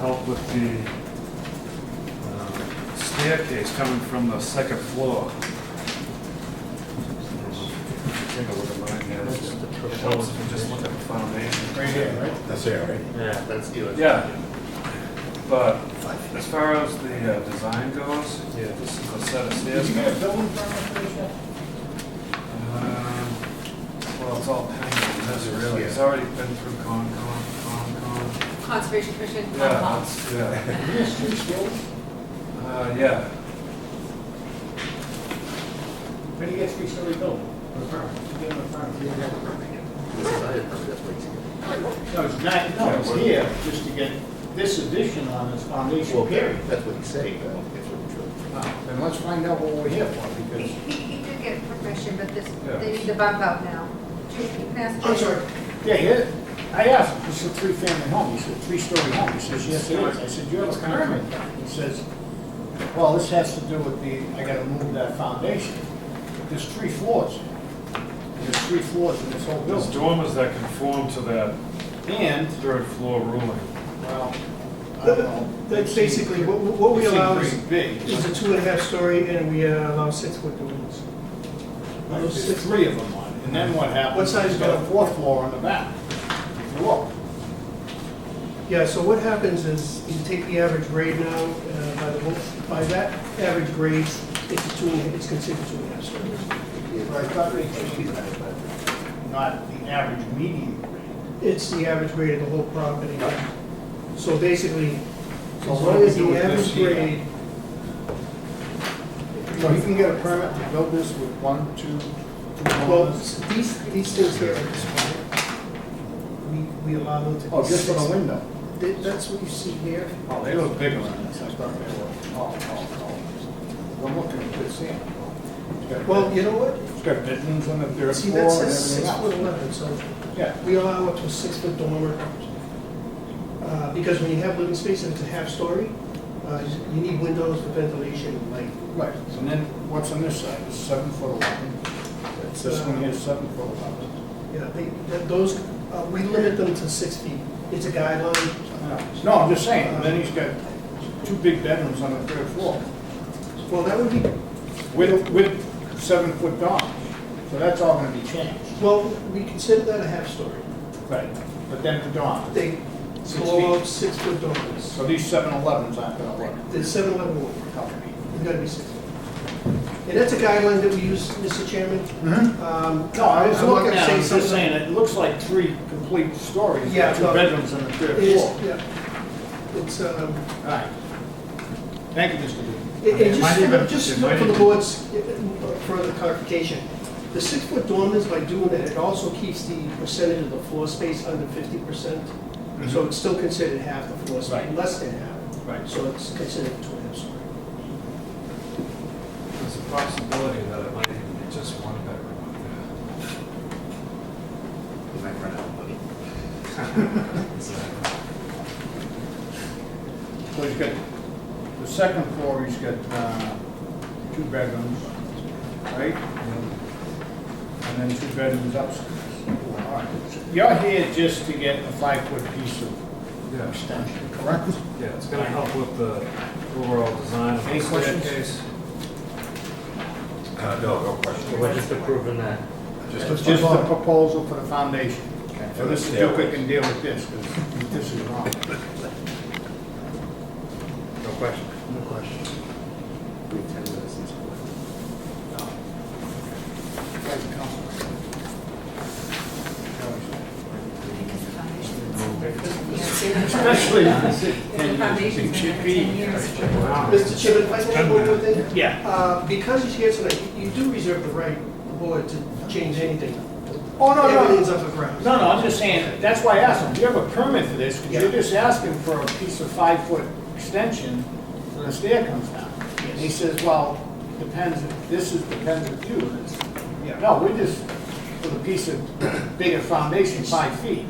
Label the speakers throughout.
Speaker 1: help with the uh, staircase coming from the second floor. Take a look at mine here. It helps if you Just look at the foundation.
Speaker 2: Right here, right?
Speaker 3: That's it, right?
Speaker 1: Yeah.
Speaker 2: That's Eli.
Speaker 1: Yeah, but as far as the uh, design goes,
Speaker 2: Yeah.
Speaker 1: this is a set of
Speaker 2: Did
Speaker 1: stairs.
Speaker 2: you get a building permit for this yet?
Speaker 1: Um, Well, it's all pending, that's really, it's
Speaker 2: Yeah.
Speaker 1: already been through Concom, Concom.
Speaker 4: Conservation Commission,
Speaker 1: Yeah,
Speaker 4: Concom.
Speaker 1: that's- yeah,
Speaker 2: Is this two stories?
Speaker 1: uh, yeah.
Speaker 2: Where do you get three-story building? A permit. You get a permit. You don't have a permit yet. No, it's not, no, it's here, just to get this addition on this foundation
Speaker 3: Well,
Speaker 2: period.
Speaker 3: that's what he's saying, but I don't think it's really true.
Speaker 2: Now, Then let's find out what we're here for,
Speaker 4: He,
Speaker 2: because.
Speaker 4: he he did get permission, but this,
Speaker 1: Yeah. Oh,
Speaker 4: they need to bump out now. Do you can ask?
Speaker 2: Yeah, here, I asked, him, it's a three-family home, he said, three-story home, he says, yes, it is. I said, you have a permit? He says, well, this has to do with the, I gotta move that foundation. There's three floors. There's three floors in this whole
Speaker 1: There's
Speaker 2: building.
Speaker 1: dormers that conform to that
Speaker 2: And,
Speaker 1: third floor ruling.
Speaker 2: well, I don't know.
Speaker 5: That's basically, what- what we
Speaker 2: It seemed
Speaker 5: allow is
Speaker 2: pretty big.
Speaker 5: is a two and a half story, and we uh, allow six foot buildings.
Speaker 2: There's three of them on it, and then what happens?
Speaker 5: What size
Speaker 2: It's Got a fourth floor on the back. If you look.
Speaker 5: Yeah, so what happens is, you take the average grade now, uh, by the, whole- by that average grade, it's a two, and- it's considered two and a half stories.
Speaker 2: But I thought they changed that, but not the average median grade.
Speaker 5: It's the average grade of the whole property. So basically, as
Speaker 2: So what
Speaker 5: long
Speaker 2: do we
Speaker 5: as
Speaker 2: do
Speaker 5: the
Speaker 2: with
Speaker 5: average
Speaker 2: this here?
Speaker 5: grade,
Speaker 2: So you can get a permit to build this with one, two, two
Speaker 5: well,
Speaker 2: homes?
Speaker 5: s- these, these things here are expired. We, we allow them to. be
Speaker 2: Oh, just for
Speaker 5: six-
Speaker 2: the window?
Speaker 5: Th- That's what you see here.
Speaker 2: Oh, they look bigger on this, I thought they were. Oh, oh, oh. I'm looking at this here. It's got-
Speaker 5: Well, you know what?
Speaker 2: It's got bedrooms on the third
Speaker 5: See,
Speaker 2: floor
Speaker 5: that
Speaker 2: and
Speaker 5: says
Speaker 2: everything
Speaker 5: six foot
Speaker 2: else.
Speaker 5: eleven, so
Speaker 2: Yeah,
Speaker 5: we allow up to a six foot dormer. Uh, Because when you have living space and it's a half story, uh, you need windows for ventilation and light.
Speaker 2: right. And then what's on this side? It's seven foot eleven. uh, This one here is seven foot eleven.
Speaker 5: Yeah, they, that- those, uh, we limit them to six feet. It's a guideline.
Speaker 2: No, I'm just saying, and then he's got two big bedrooms on the third floor
Speaker 5: Well, that would be,
Speaker 2: with, with seven foot dorms. So that's all gonna be changed.
Speaker 5: well, we consider that a half story.
Speaker 2: Right. But then the dorm.
Speaker 5: They
Speaker 2: Six
Speaker 5: blow
Speaker 2: feet.
Speaker 5: out six foot dormers.
Speaker 2: So these seven elevens aren't gonna work.
Speaker 5: The seven eleven won't work out. It's gotta be six. And that's a guideline that we use, Mr. Chairman.
Speaker 2: No,
Speaker 5: Um,
Speaker 2: I was
Speaker 5: I'm not
Speaker 2: looking
Speaker 5: gonna
Speaker 2: at
Speaker 5: say
Speaker 2: it, just
Speaker 5: something-
Speaker 2: saying, it looks like three complete stories,
Speaker 5: Yeah,
Speaker 2: two
Speaker 5: no.
Speaker 2: bedrooms on the
Speaker 5: It
Speaker 2: third
Speaker 5: is,
Speaker 2: floor.
Speaker 5: yeah. It's, um,
Speaker 2: All right. Thank you, Mr. Booth.
Speaker 5: it,
Speaker 1: It
Speaker 5: it
Speaker 1: might even-
Speaker 5: just,
Speaker 1: it
Speaker 5: just
Speaker 1: might
Speaker 5: for the
Speaker 1: even-
Speaker 5: board's uh, further clarification, the six-foot dormers, by doing that, it also keeps the percentage of the floor space under fifty percent. So it's still considered half the floor space,
Speaker 2: Right.
Speaker 5: less than half,
Speaker 2: Right.
Speaker 5: so it's considered two and a half story.
Speaker 1: There's a possibility that it might even be just one bedroom up
Speaker 3: He might run out of money.
Speaker 1: there.
Speaker 2: So he's got, the second floor, he's got, uh, two bedrooms, right? And then two bedrooms upstairs. All right. So You're here just to get a five-foot piece of
Speaker 1: Yeah,
Speaker 2: extension, correct?
Speaker 1: yeah, it's gonna help with the overall design of the
Speaker 2: Any questions?
Speaker 1: staircase.
Speaker 3: Uh, no, no question.
Speaker 6: We're just approving that.
Speaker 3: Just
Speaker 2: It's
Speaker 3: a
Speaker 2: just a
Speaker 3: thought.
Speaker 2: proposal for the foundation. So Mr. Duca
Speaker 3: Stairways.
Speaker 2: can deal with this, because this is wrong.
Speaker 3: No question.
Speaker 2: No question.
Speaker 3: We have ten minutes each.
Speaker 2: No. Thank you, Council.
Speaker 4: Because the foundation.
Speaker 2: Especially if
Speaker 4: The foundation's been there for ten years.
Speaker 5: Mr. Chairman, if I can add one more thing?
Speaker 2: Yeah.
Speaker 5: Uh, because he's here tonight, you do reserve the right, the board, to change anything.
Speaker 2: Oh, no, no.
Speaker 5: Everything's up for grabs.
Speaker 2: No, no, I'm just saying, that's why I asked him, do you have a permit for this? 'Cause
Speaker 5: Yeah.
Speaker 2: you're just asking for a piece of five-foot extension when the stair comes down. And he says, well, depends, if- this is depends if you, and it's,
Speaker 5: Yeah.
Speaker 2: no, we're just for the piece of bigger foundation, five feet.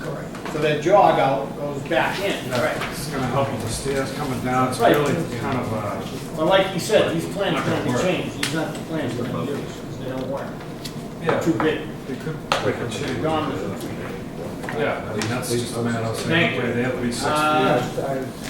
Speaker 5: Correct.
Speaker 2: So that jog out goes back in.
Speaker 1: Yeah, It's gonna help with the stairs coming down, it's
Speaker 2: Right.
Speaker 1: really kind of uh, a,
Speaker 2: Well, like he said, these plans can't be changed, these aren't the plans we're gonna use, 'cause they don't work.
Speaker 1: yeah,
Speaker 2: Too big.
Speaker 1: it could, it could change.
Speaker 2: Gone with it.
Speaker 1: Uh,
Speaker 7: Yeah,
Speaker 1: I mean, that's just a matter of saying,
Speaker 7: Thank you.
Speaker 1: okay, they have to be six feet.
Speaker 7: Uh,
Speaker 1: I-